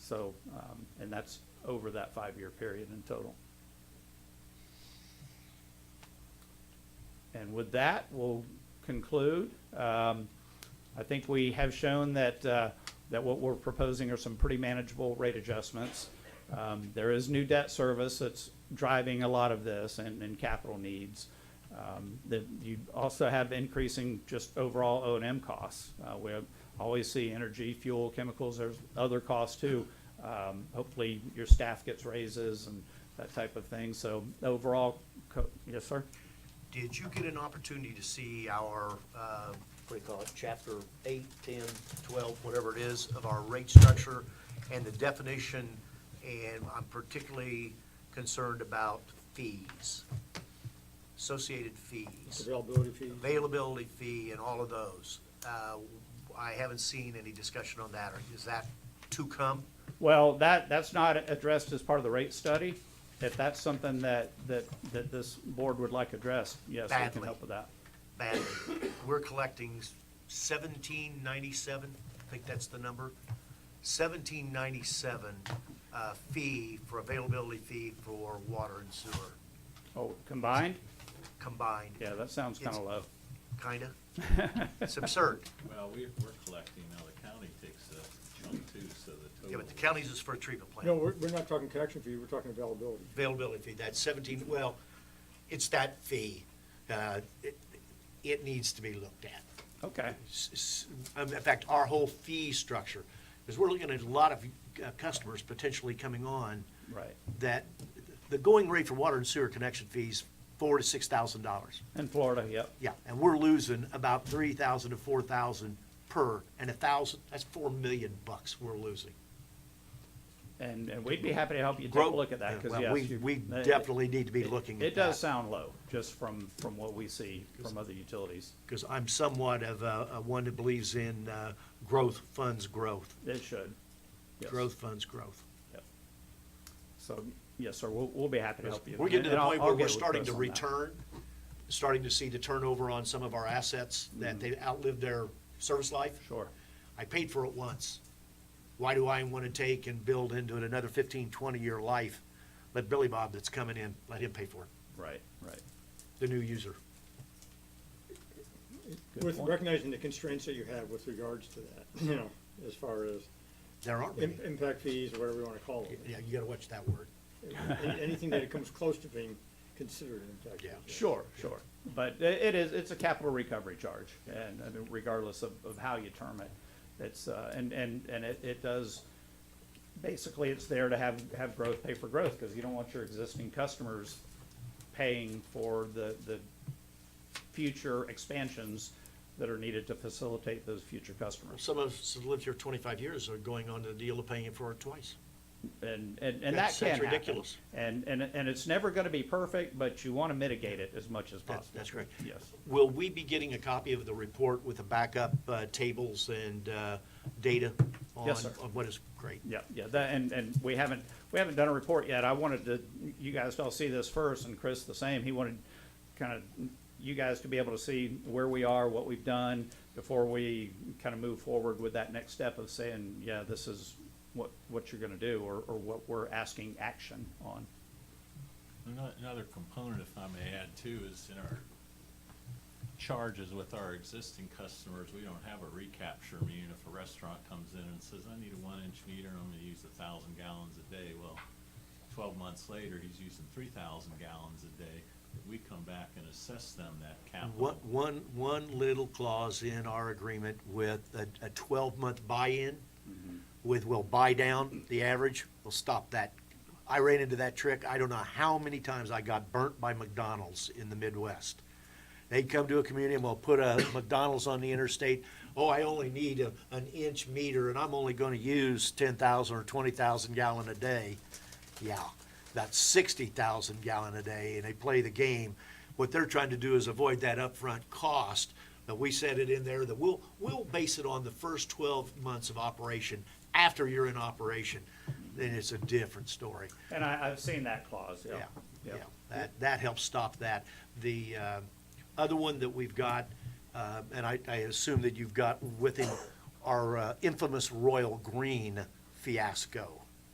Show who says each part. Speaker 1: So, um, and that's over that five-year period in total. And with that, we'll conclude. Um, I think we have shown that, uh, that what we're proposing are some pretty manageable rate adjustments. Um, There is new debt service that's driving a lot of this and, and capital needs. Um, That you also have increasing just overall O and M costs. Uh, We always see energy, fuel, chemicals, there's other costs too. Um, Hopefully, your staff gets raises and that type of thing. So overall, co- yes, sir?
Speaker 2: Did you get an opportunity to see our, uh, what do you call it, chapter eight, ten, twelve, whatever it is, of our rate structure and the definition? And I'm particularly concerned about fees, associated fees,
Speaker 3: Availability fees?
Speaker 2: availability fee and all of those. Uh, I haven't seen any discussion on that. Is that to come?
Speaker 1: Well, that, that's not addressed as part of the rate study. If that's something that, that, that this board would like addressed, yes, we can
Speaker 2: Badly.
Speaker 1: help with that.
Speaker 2: badly. We're collecting seventeen ninety-seven, I think that's the number, seventeen ninety-seven uh, fee for availability fee for water and sewer
Speaker 1: Oh, combined?
Speaker 2: combined,
Speaker 1: Yeah, that sounds kind of
Speaker 2: It's-
Speaker 1: low.
Speaker 2: kinda. It's absurd.
Speaker 4: Well, we, we're collecting, now the county takes a chunk too, so the total.
Speaker 2: Yeah, but the county's is for a treatment
Speaker 3: No,
Speaker 2: plant.
Speaker 3: we're, we're not talking connection fee, we're talking availability.
Speaker 2: Availability fee, that's seventeen, well, it's that fee. Uh, It it needs to be looked at.
Speaker 1: Okay,
Speaker 2: s- s- um, in fact, our whole fee structure, because we're looking at a lot of uh, customers potentially coming on.
Speaker 1: Right.
Speaker 2: That, the going rate for water and sewer connection fees, four to six thousand dollars.
Speaker 1: in Florida, yep.
Speaker 2: Yeah, and we're losing about three thousand to four thousand per, and a thousand, that's four million bucks we're losing.
Speaker 1: And, and we'd be happy to help you take a look at that, because
Speaker 2: Well,
Speaker 1: yes.
Speaker 2: we-
Speaker 1: you-
Speaker 2: We
Speaker 1: it-
Speaker 2: definitely need to be looking at that.
Speaker 1: It does sound low, just from, from what we see from other utilities.
Speaker 2: Because I'm somewhat of a, a one that believes in uh, growth funds growth,
Speaker 1: It should. Yes.
Speaker 2: growth funds growth.
Speaker 1: Yep. So, yes, sir, we'll, we'll be happy to help you.
Speaker 2: We're getting to the
Speaker 1: And I'll-
Speaker 2: point
Speaker 1: I'll
Speaker 2: where we're
Speaker 1: get with
Speaker 2: starting
Speaker 1: Chris
Speaker 2: to
Speaker 1: on that.
Speaker 2: return, starting to see the turnover on some of our assets,
Speaker 1: Mm-hmm.
Speaker 2: that they outlived their service life.
Speaker 1: Sure.
Speaker 2: I paid for it once. Why do I want to take and build into it another 15, 20-year life? Let Billy Bob that's coming in, let him pay for it,
Speaker 1: Right, right.
Speaker 2: the new user.
Speaker 1: Good
Speaker 3: With
Speaker 1: point.
Speaker 3: recognizing the constraints that you have with regards to that, you know, as far as
Speaker 2: There aren't many.
Speaker 3: im- impact fees, or whatever you wanna call them.
Speaker 2: Yeah, you got to watch that word.
Speaker 3: Any- Anything that comes close to being considered an impact. fee.
Speaker 2: Yeah.
Speaker 1: Sure, sure. But i- it is, it's a capital recovery charge, and I mean, regardless of, of how you term it. It's, uh, and, and, and it, it does, basically, it's there to have, have growth pay for growth, because you don't want your existing customers paying for the, the future expansions that are needed to facilitate those future customers.
Speaker 2: Some of us have lived here 25 years are going on to the deal of paying it for it twice.
Speaker 1: And, and, and that
Speaker 2: That's-
Speaker 1: can happen.
Speaker 2: that's ridiculous.
Speaker 1: And, and, and it's never gonna be perfect, but you wanna mitigate it as much as
Speaker 2: That's,
Speaker 1: possible.
Speaker 2: that's correct.
Speaker 1: Yes.
Speaker 2: Will we be getting a copy of the report with the backup uh, tables and uh, data on?
Speaker 1: Yes, sir.
Speaker 2: on what is, great.
Speaker 1: Yeah, yeah, that, and, and we haven't, we haven't done a report yet. I wanted to, you guys to all see this first, and Chris the same. He wanted kind of you guys to be able to see where we are, what we've done, before we kind of move forward with that next step of saying, yeah, this is what, what you're gonna do, or, or what we're asking action on.
Speaker 4: Ano- Another component, if I may add too, is in our charges with our existing customers, we don't have a recapture. I mean, if a restaurant comes in and says, I need a one-inch meter, and I'm gonna use a thousand gallons a day, well, twelve months later, he's using three thousand gallons a day. We come back and assess them that
Speaker 2: One,
Speaker 4: capital.
Speaker 2: one, one little clause in our agreement with a, a twelve-month buy-in with we'll buy down the average, we'll stop that. I ran into that trick. I don't know how many times I got burnt by McDonald's in the Midwest. They'd come to a community and we'll put a McDonald's on the interstate. Oh, I only need a, an inch meter and I'm only gonna use ten thousand or twenty thousand gallon a day. Yeah, that's sixty thousand gallon a day and they play the game. What they're trying to do is avoid that upfront cost. But we said it in there that we'll, we'll base it on the first twelve months of operation. After you're in operation, then it's a different story.
Speaker 1: And I, I've seen that clause, yeah.
Speaker 2: Yeah, yeah, that, that helps stop that. The uh, other one that we've got, uh, and I, I assume that you've got with him, our uh, infamous Royal Green fiasco.